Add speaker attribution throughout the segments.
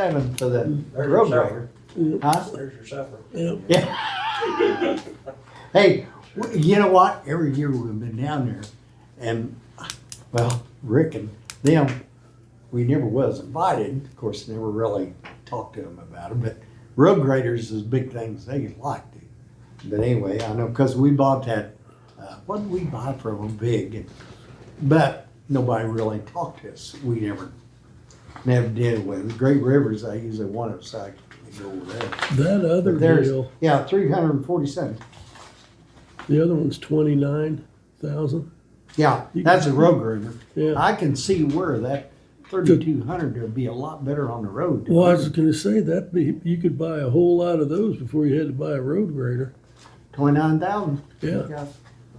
Speaker 1: seven for the
Speaker 2: There's your
Speaker 1: road grader,
Speaker 2: supper.
Speaker 1: huh?
Speaker 2: There's your supper.
Speaker 3: Yeah.
Speaker 1: Yeah. Hey, w- you know what? Every year we've been down there and, well, Rick and them, we never was invited. Of course, never really talked to them about it, but road graders is big things they like to. But anyway, I know, cause we bought that, uh, what did we buy from them big? But nobody really talked to us. We never, never did with them. Great Rivers, I usually want them, so I can go over there.
Speaker 3: That other
Speaker 1: But there's-
Speaker 3: deal,
Speaker 1: Yeah, three hundred and forty-seven.
Speaker 3: the other one's twenty-nine thousand.
Speaker 1: Yeah,
Speaker 3: You-
Speaker 1: that's a road groomer.
Speaker 3: Yeah.
Speaker 1: I can see where that thirty-two hundred would be a lot better on the road.
Speaker 3: Well, I was
Speaker 1: Mm-hmm.
Speaker 3: gonna say that be, you could buy a whole lot of those before you had to buy a road grader.
Speaker 1: Twenty-nine thousand.
Speaker 3: Yeah.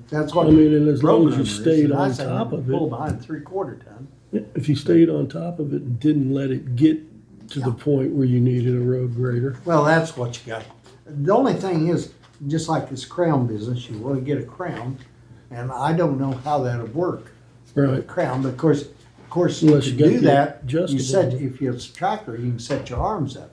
Speaker 1: That's
Speaker 3: I
Speaker 1: what.
Speaker 3: mean, and as
Speaker 1: road
Speaker 3: long as
Speaker 1: groomer
Speaker 3: you
Speaker 1: is,
Speaker 3: stayed
Speaker 1: and I
Speaker 3: on
Speaker 1: say
Speaker 3: top of
Speaker 1: Pull
Speaker 3: it,
Speaker 1: behind three-quarter ton.
Speaker 3: if you stayed on top of it and didn't let it get to the
Speaker 1: Yeah.
Speaker 3: point where you needed a road grader.
Speaker 1: Well, that's what you got. The only thing is, just like this crown business, you wanna get a crown, and I don't know how that'll work.
Speaker 3: Right.
Speaker 1: Crown, but of course, of course, you
Speaker 3: Unless
Speaker 1: can
Speaker 3: you got
Speaker 1: do
Speaker 3: the
Speaker 1: that. You
Speaker 3: adjustable.
Speaker 1: set, if you're a tractor, you can set your arms up,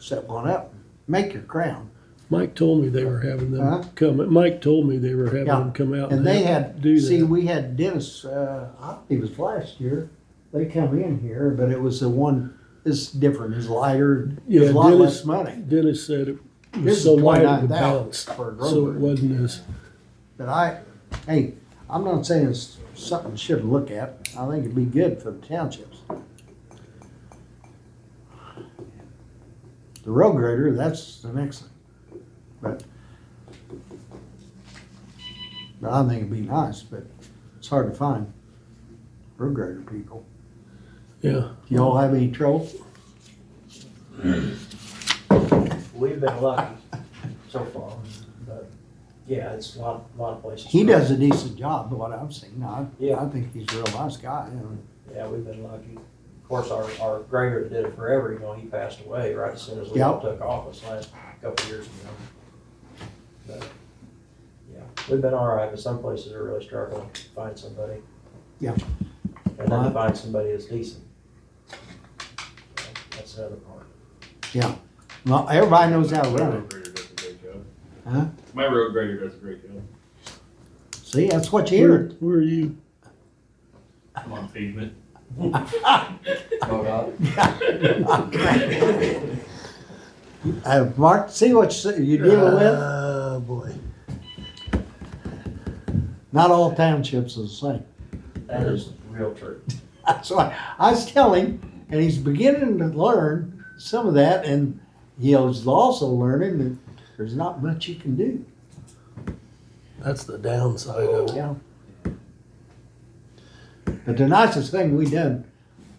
Speaker 1: set one up, make your crown.
Speaker 3: Mike told me they were having
Speaker 1: Huh?
Speaker 3: them come, Mike told me they were having
Speaker 1: Yeah.
Speaker 3: them come out
Speaker 1: And
Speaker 3: and
Speaker 1: they
Speaker 3: help
Speaker 1: had,
Speaker 3: do
Speaker 1: see,
Speaker 3: that.
Speaker 1: we had Dennis, uh, I think it was last year, they come in here, but it was the one, it's different, it's lighter,
Speaker 3: Yeah,
Speaker 1: it's a lot
Speaker 3: Dennis-
Speaker 1: less money.
Speaker 3: Dennis said it
Speaker 1: This
Speaker 3: was
Speaker 1: is
Speaker 3: so light
Speaker 1: 29,000
Speaker 3: of the balance,
Speaker 1: for a
Speaker 3: so
Speaker 1: road.
Speaker 3: it wasn't as,
Speaker 1: But I, hey, I'm not saying it's something you should look at, I think it'd be good for the townships. The road grader, that's the next thing, but. But I think it'd be nice, but it's hard to find road grader people.
Speaker 3: yeah.
Speaker 1: Y'all have any trouble?
Speaker 2: We've been lucky so far, but yeah, it's a lot, a lot of places.
Speaker 1: He does a decent job, what I've seen. I,
Speaker 2: Yeah.
Speaker 1: I think he's a real nice guy. you know.
Speaker 2: Yeah, we've been lucky. Of course, our, our grader that did it forever, you know, he passed away right as soon as we all
Speaker 1: Yep.
Speaker 2: took office last couple of years ago. But, yeah, we've been all right, but some places are really struggling to find somebody.
Speaker 1: Yeah.
Speaker 2: And then to find somebody that's decent. That's another part.
Speaker 1: Yeah. Well, everybody knows how to
Speaker 4: My
Speaker 1: run it.
Speaker 4: road grader does a great job.
Speaker 1: Huh?
Speaker 4: My road grader does a great job.
Speaker 1: See, that's what you
Speaker 3: Where,
Speaker 1: hear.
Speaker 3: where are you?
Speaker 4: I'm on pavement.
Speaker 1: Uh, Mark, see what you- you're dealing with?
Speaker 3: Oh, boy.
Speaker 1: Not all townships are the same.
Speaker 2: That is real true.
Speaker 1: That's why I was telling him, and he's beginning to learn some of that, and he's also learning that there's not much you can do.
Speaker 3: That's the downside of
Speaker 1: Yeah. But the nicest thing we done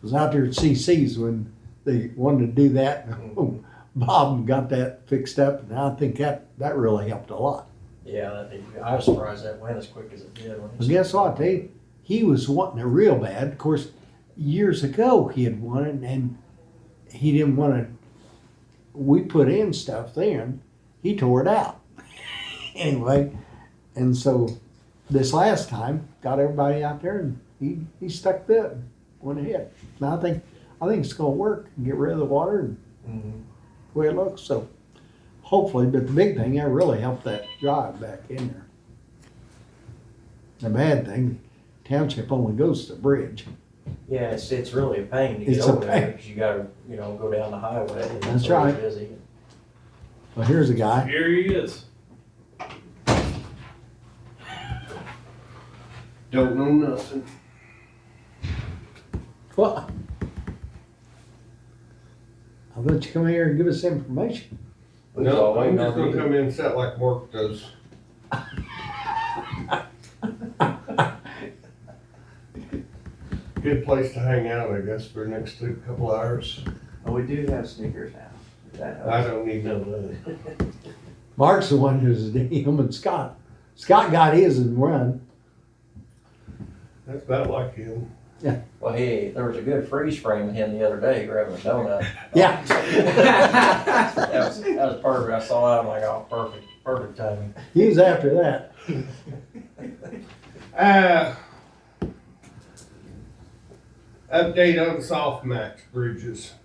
Speaker 1: was out there at CC's when they wanted to do that. Bob got that fixed up, and I think that, that really helped a lot.
Speaker 2: Yeah, that- I was surprised that went as quick as it did. when
Speaker 1: Well,
Speaker 2: he-
Speaker 1: guess what, Dave? He was wanting it real bad. Of course, years ago he had wanted, and he didn't want to. We put in stuff then. He tore it out anyway, and so this last time got everybody out there, and he he stuck that and went ahead. Now I think I think it's gonna work. and Get rid of the water and
Speaker 2: Mhm.
Speaker 1: the way it looks. So hopefully, but the big thing, that really helped that drive back in there. The bad thing, township only goes to the bridge.
Speaker 2: Yeah, it's, it's really a pain to get
Speaker 1: It's a
Speaker 2: over
Speaker 1: pain.
Speaker 2: there, because you gotta, you know, go down the highway. and it's
Speaker 1: That's
Speaker 2: always
Speaker 1: right.
Speaker 2: Busy.
Speaker 1: Well, here's a guy.
Speaker 4: Here he is.
Speaker 5: Don't know nothing.
Speaker 1: What? I'll let you come here and give us information.
Speaker 5: No, I'm just gonna come in and sit like Mark does. Good place to hang out, I guess, for the next two- couple hours.
Speaker 2: Well, Oh, we do have sneakers now. That
Speaker 5: I
Speaker 2: helps.
Speaker 5: don't need no money.
Speaker 1: Mark's the one who's him and Scott. Scott got his and run.
Speaker 5: That's about like him.
Speaker 2: Well, hey, there was a good freeze frame of him the other day grabbing a donut.
Speaker 1: Yeah.
Speaker 2: That was, that was perfect. I saw that, I'm like, oh, perfect, perfect timing.
Speaker 1: He was after that.
Speaker 5: Uh, update on soft match bridges.